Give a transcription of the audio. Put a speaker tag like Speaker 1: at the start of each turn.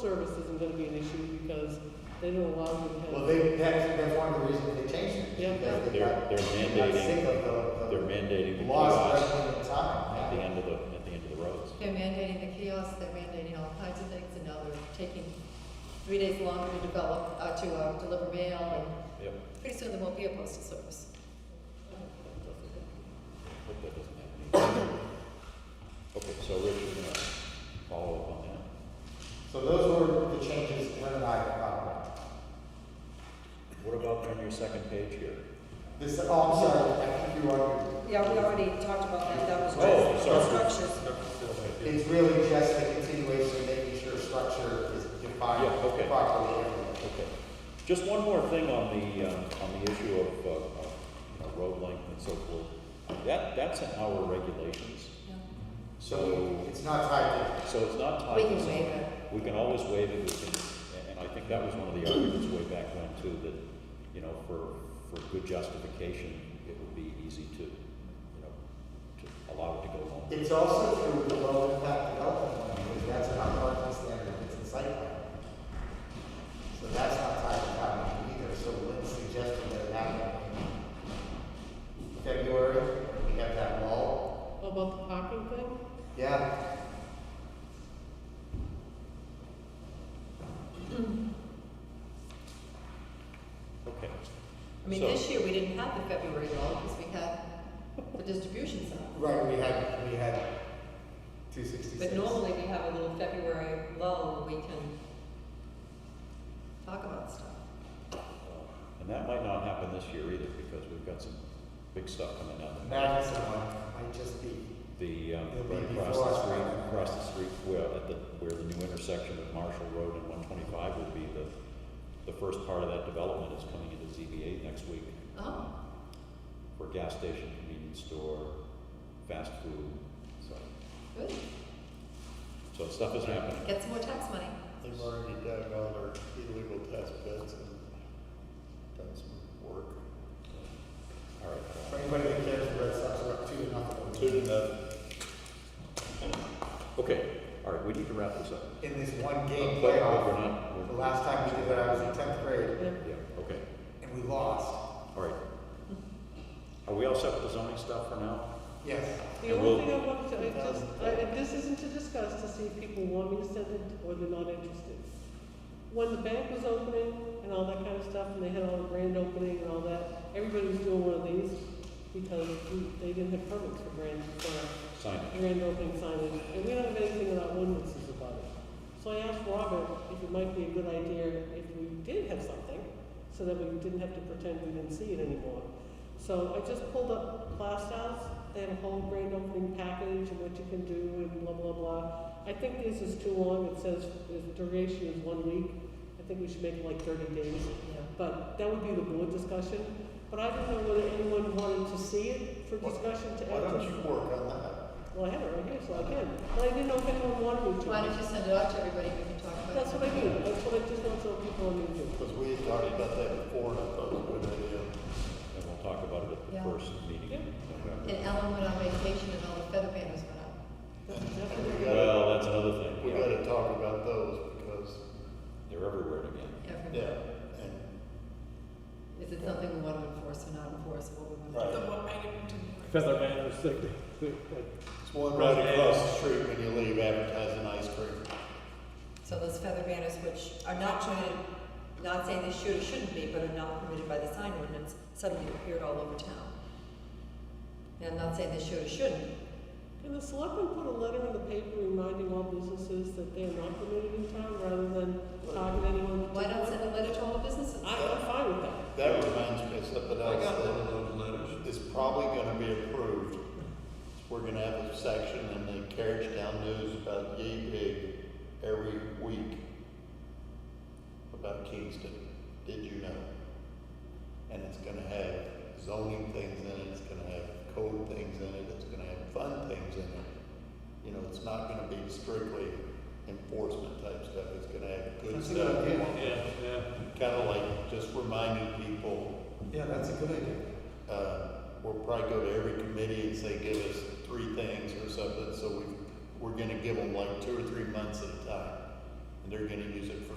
Speaker 1: service isn't gonna be an issue because they don't allow you to have.
Speaker 2: Well, they, that's, that's one of the reasons they changed
Speaker 1: Yeah.
Speaker 2: it, because they
Speaker 3: They're-
Speaker 2: got,
Speaker 3: they're
Speaker 2: they got
Speaker 3: mandating-
Speaker 2: sick of
Speaker 3: They're
Speaker 2: the,
Speaker 3: mandating
Speaker 2: the
Speaker 3: the
Speaker 2: laws
Speaker 3: kiosks
Speaker 2: right in
Speaker 3: at
Speaker 2: time.
Speaker 3: the
Speaker 2: yeah.
Speaker 3: end of the, at the end of the roads.
Speaker 4: They're mandating the kiosks, they're mandating all kinds of things, and now they're taking three days longer to develop, uh, to, uh, deliver mail,
Speaker 3: Yep.
Speaker 4: and pretty soon there won't be a postal service.
Speaker 3: Hope that doesn't happen. Okay, so Rich, you're gonna follow up on that.
Speaker 2: So those were the changes Lynn and I thought about.
Speaker 3: What about on your second page here?
Speaker 2: This, oh, I'm sorry, I think you are,
Speaker 5: Yeah, we already talked about that, that was
Speaker 3: Oh,
Speaker 5: just
Speaker 3: sorry.
Speaker 5: the structures.
Speaker 2: it's really just the continuation, of making sure structure is defined
Speaker 3: Yeah, okay.
Speaker 2: properly.
Speaker 3: Okay. Just one more thing on the, um, on the issue of, uh, of, you know, road length and so forth. That, that's in our regulations,
Speaker 4: Yeah.
Speaker 2: So
Speaker 3: so,
Speaker 2: it's not tied
Speaker 3: so it's not tied.
Speaker 4: We
Speaker 3: to
Speaker 4: can
Speaker 3: something.
Speaker 4: waive it.
Speaker 3: We can always waive it, we can, and and I think that was one of the arguments way back when too, that, you know, for, for good justification, it would be easy to, you know, to allow it to go
Speaker 2: to,
Speaker 3: longer.
Speaker 2: it's also through the low impact development, plan, because that's not parking standard, it's in site plan. So that's not tied to town meeting either, so Lynn's suggesting that it happen in February, we have that wall.
Speaker 1: About the parking thing?
Speaker 2: Yeah,
Speaker 3: Okay.
Speaker 4: I mean,
Speaker 3: So-
Speaker 4: this year, we didn't have the February law, because we had the distribution center.
Speaker 2: right, we had, we had two sixty-six.
Speaker 4: But normally, we have a little February lull, we can talk about stuff.
Speaker 3: And that might not happen this year either, because we've got some big stuff coming up.
Speaker 2: Madison one might just be,
Speaker 3: The, um,
Speaker 2: It'll be
Speaker 3: right across
Speaker 2: before
Speaker 3: the
Speaker 2: us,
Speaker 3: street,
Speaker 2: right?
Speaker 3: across the street, where, at the, where the new intersection of Marshall Road and one twenty-five will be the, the first part of that development is coming into ZBA next week.
Speaker 4: Oh.
Speaker 3: For gas station, convenience store, fast food, so,
Speaker 4: Good,
Speaker 3: so stuff is happening.
Speaker 4: get some more tax money.
Speaker 6: They've already dug all their illegal test beds and done some work.
Speaker 3: All right.
Speaker 2: for anybody that cares, the Red Sox are up two to nothing.
Speaker 6: Two to nothing.
Speaker 3: Okay, all right, we need to wrap this up.
Speaker 2: in this one
Speaker 3: But,
Speaker 2: game
Speaker 3: but we're
Speaker 2: playoff.
Speaker 3: not. we're-
Speaker 2: The last time we did that, I was in tenth grade,
Speaker 3: Yeah, okay,
Speaker 2: and we lost.
Speaker 3: all right. Are we all set with the zoning stuff for now?
Speaker 2: Yes.
Speaker 1: The
Speaker 3: And
Speaker 1: only
Speaker 3: we'll-
Speaker 1: thing I wanted to, I just, I, and this isn't to discuss, to see if people want me to send it or they're not interested. When the bank was opening and all that kind of stuff, and they had all the grand opening and all that, everybody was doing one of these because we- they didn't have permits for grand, for
Speaker 3: Sign it.
Speaker 1: grand opening signage, and we don't have anything in our ordinances about it. So I asked Robert if it might be a good idea if we did have something, so that we didn't have to pretend we didn't see it anymore. So I just pulled up Plastows, they have a whole grand opening package and what you can do and blah, blah, blah. I think this is too long, it says the duration is one week, I think we should make it like thirty days. But that would be the board discussion, but I don't know whether anyone wanted to see it for
Speaker 6: Why-
Speaker 1: discussion to add to.
Speaker 6: Why don't you work on that?
Speaker 1: Well, I have it right here, so I can. But I didn't know if anyone wanted me to.
Speaker 4: Why don't you send it out to everybody, we can talk about it.
Speaker 1: That's what I do. That's what I just want to tell people I need to.
Speaker 6: Because we had talked about that before, and I thought it was a good idea.
Speaker 3: And we'll talk about it at the
Speaker 4: Yeah.
Speaker 3: first meeting in November.
Speaker 4: And Ellen went on vacation and all the feather banners went up.
Speaker 1: That's exactly.
Speaker 6: And we gotta,
Speaker 3: Well, that's another thing,
Speaker 6: we
Speaker 3: yeah.
Speaker 6: gotta talk about those, because,
Speaker 3: They're everywhere again.
Speaker 4: Everybody.
Speaker 6: yeah, and
Speaker 4: Is it something we want to enforce or not enforce, what we want
Speaker 6: Right.
Speaker 4: to do?
Speaker 7: Feather banners, they, they, they,
Speaker 6: it's one right across the street when you leave advertising ice cream.
Speaker 4: So those feather banners, which are not permitted, not saying they should or shouldn't be, but are not permitted by the sign ordinance, suddenly appeared all over town. And I'm not saying they should or shouldn't,
Speaker 1: Can the selectmen put a letter in the paper reminding all businesses that they are not permitted in town rather than target anyone?
Speaker 4: why not send a letter to all the businesses?
Speaker 1: I, I'm fine with that.
Speaker 6: That reminds me of something else.
Speaker 2: got
Speaker 6: that It's probably gonna be approved. We're gonna have a section in the Carriage Down News about yay big every week about Kingston. Did you know? And it's gonna have zoning things in it, it's gonna have code things in it, it's gonna have fun things in it. You know, it's not gonna be strictly enforcement type stuff, it's gonna have good
Speaker 2: That's a good
Speaker 6: stuff.
Speaker 2: idea.
Speaker 6: Kinda like just reminding people
Speaker 2: Yeah, that's a good idea.
Speaker 6: uh, we'll probably go to every committee and say, give us three things or something, so we, we're gonna give them like two or three months at a time. and they're gonna use it for